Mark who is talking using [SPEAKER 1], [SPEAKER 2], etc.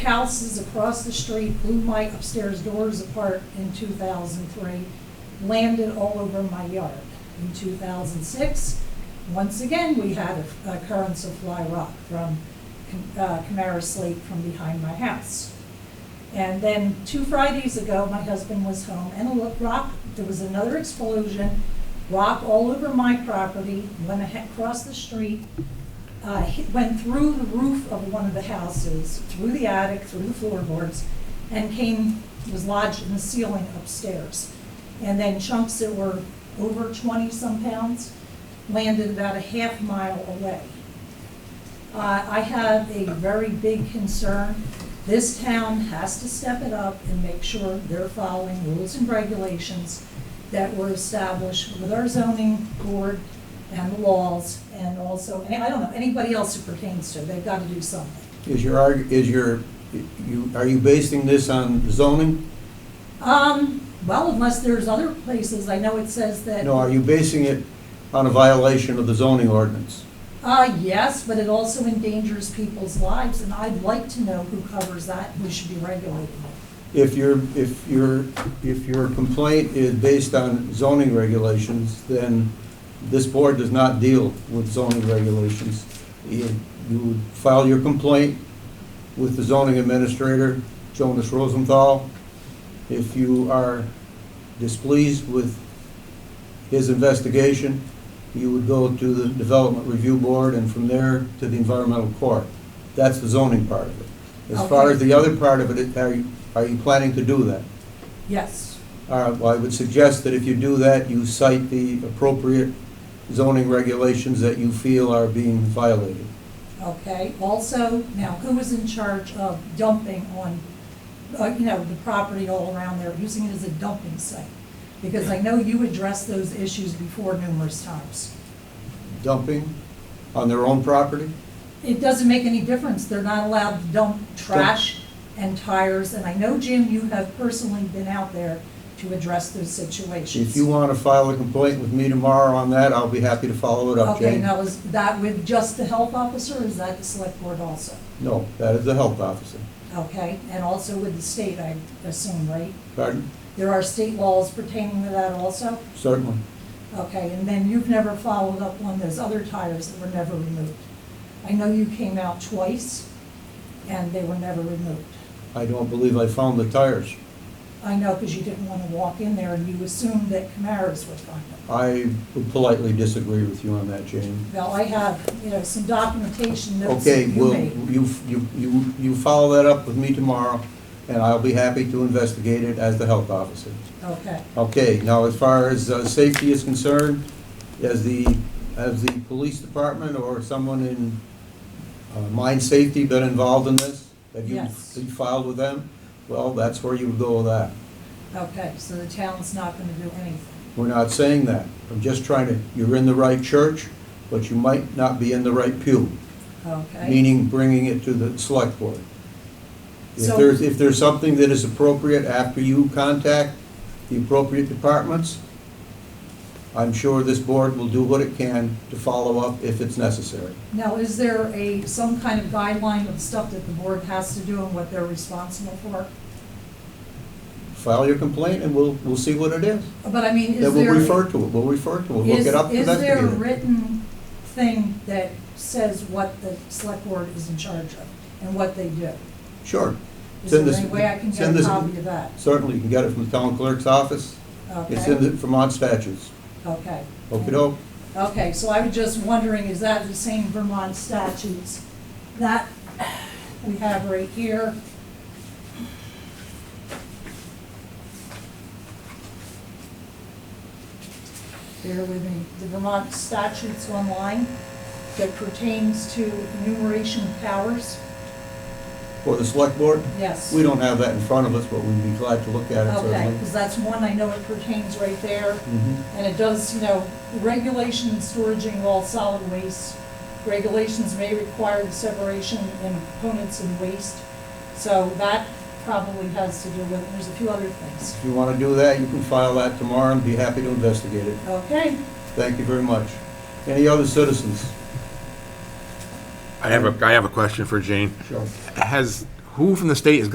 [SPEAKER 1] houses across the street blew my upstairs doors apart in 2003, landed all over my yard. In 2006, once again, we had a- a occurrence of fly rock from uh, Camara slate from behind my house. And then two Fridays ago, my husband was home and a lo- rock, there was another explosion, rock all over my property, went ahe- across the street, uh, hit- went through the roof of one of the houses, through the attic, through the floorboards, and came, was lodged in the ceiling upstairs. And then chunks that were over 20-some pounds landed about a half mile away. Uh, I have a very big concern. This town has to step it up and make sure they're following rules and regulations that were established with our zoning board and the laws, and also, and I don't know, anybody else it pertains to, they've got to do something.
[SPEAKER 2] Is your, arg- is your, you, are you basing this on zoning?
[SPEAKER 1] Um, well, unless there's other places, I know it says that.
[SPEAKER 2] No, are you basing it on a violation of the zoning ordinance?
[SPEAKER 1] Uh, yes, but it also endangers people's lives, and I'd like to know who covers that, and who should be regulating it.
[SPEAKER 2] If your, if your, if your complaint is based on zoning regulations, then this board does not deal with zoning regulations. You you would file your complaint with the zoning administrator, Jonas Rosenthal. If you are displeased with his investigation, you would go to the Development Review Board and from there to the Environmental Court. That's the zoning part of it. As far
[SPEAKER 1] Okay.
[SPEAKER 2] as the other part of it, are you, are you planning to do that?
[SPEAKER 1] Yes.
[SPEAKER 2] All right, well, I would suggest that if you do that, you cite the appropriate zoning regulations that you feel are being violated.
[SPEAKER 1] Okay, also, now, who is in charge of dumping on, uh, you know, the property all around there, using it as a dumping site? Because I know you addressed those issues before numerous times.
[SPEAKER 2] Dumping on their own property?
[SPEAKER 1] It doesn't make any difference, they're not allowed to dump trash and tires, and I know, Jim, you have personally been out there to address those situations.
[SPEAKER 2] If you want to file a complaint with me tomorrow on that, I'll be happy to follow it up,
[SPEAKER 1] Okay,
[SPEAKER 2] Jane.
[SPEAKER 1] now, is that with just the health officer, or is that the select board also?
[SPEAKER 2] No, that is the health officer.
[SPEAKER 1] Okay, and also with the state, I assume, right?
[SPEAKER 2] Pardon?
[SPEAKER 1] There are state laws pertaining to that also?
[SPEAKER 2] Certainly.
[SPEAKER 1] Okay, and then you've never followed up on those other tires that were never removed. I know you came out twice, and they were never removed.
[SPEAKER 2] I don't believe I found the tires.
[SPEAKER 1] I know because you didn't want to walk in there, and you assumed that Camaras would find them.
[SPEAKER 2] I would politely disagree with you on that, Jane.
[SPEAKER 1] Now, I have, you know, some documentation notes that
[SPEAKER 2] Okay,
[SPEAKER 1] you
[SPEAKER 2] well,
[SPEAKER 1] made.
[SPEAKER 2] you, you, you you follow that up with me tomorrow, and I'll be happy to investigate it as the health officer.
[SPEAKER 1] Okay,
[SPEAKER 2] Okay, now as far as uh, safety is concerned, as the, has the police department or someone in uh, mine safety been involved in this? Have you-
[SPEAKER 1] Yes.
[SPEAKER 2] you filed with them? Well, that's where you would go with that.
[SPEAKER 1] okay, so the town's not going to do anything.
[SPEAKER 2] We're not saying that. I'm just trying to, you're in the right church, but you might not be in the right pew,
[SPEAKER 1] Okay.
[SPEAKER 2] meaning bringing it to the select board. If
[SPEAKER 1] So-
[SPEAKER 2] there's, if there's something that is appropriate after you contact the appropriate departments, I'm sure this board will do what it can to follow up if it's necessary.
[SPEAKER 1] Now, is there a, some kind of guideline of stuff that the board has to do and what they're responsible for?
[SPEAKER 2] File your complaint and we'll, we'll see what it is.
[SPEAKER 1] But I mean, is there?
[SPEAKER 2] Then we'll refer to it, we'll refer to it, we'll
[SPEAKER 1] Is-
[SPEAKER 2] get up and
[SPEAKER 1] Is there a
[SPEAKER 2] investigate it.
[SPEAKER 1] written thing that says what the select board is in charge of and what they do?
[SPEAKER 2] Sure.
[SPEAKER 1] Is
[SPEAKER 2] Send
[SPEAKER 1] there
[SPEAKER 2] this-
[SPEAKER 1] any way I can get
[SPEAKER 2] send
[SPEAKER 1] a
[SPEAKER 2] this-
[SPEAKER 1] copy of that?
[SPEAKER 2] Certainly, you can get it from the town clerk's office. It's in the
[SPEAKER 1] Okay,
[SPEAKER 2] Vermont statutes.
[SPEAKER 1] okay.
[SPEAKER 2] Okey-doke.
[SPEAKER 1] Okay, so I was just wondering, is that the same Vermont statutes that we have right here? Bear with me, the Vermont statutes online that pertains to enumeration of powers?
[SPEAKER 2] For the select board,
[SPEAKER 1] Yes.
[SPEAKER 2] we don't have that in front of us, but we'd be glad to look at it
[SPEAKER 1] Okay,
[SPEAKER 2] certainly.
[SPEAKER 1] because that's one I know it pertains right there.
[SPEAKER 2] Mhm.
[SPEAKER 1] And it does, you know, regulation and storaging of all solid waste. Regulations may require the separation in components and waste. So that probably has to do with, there's a few other things.
[SPEAKER 2] If you want to do that, you can file that tomorrow and be happy to investigate it.
[SPEAKER 1] Okay,
[SPEAKER 2] Thank you very much. Any other citizens?
[SPEAKER 3] I have a, I have a question for Jane.
[SPEAKER 2] Sure.
[SPEAKER 3] Has, who- who from the state is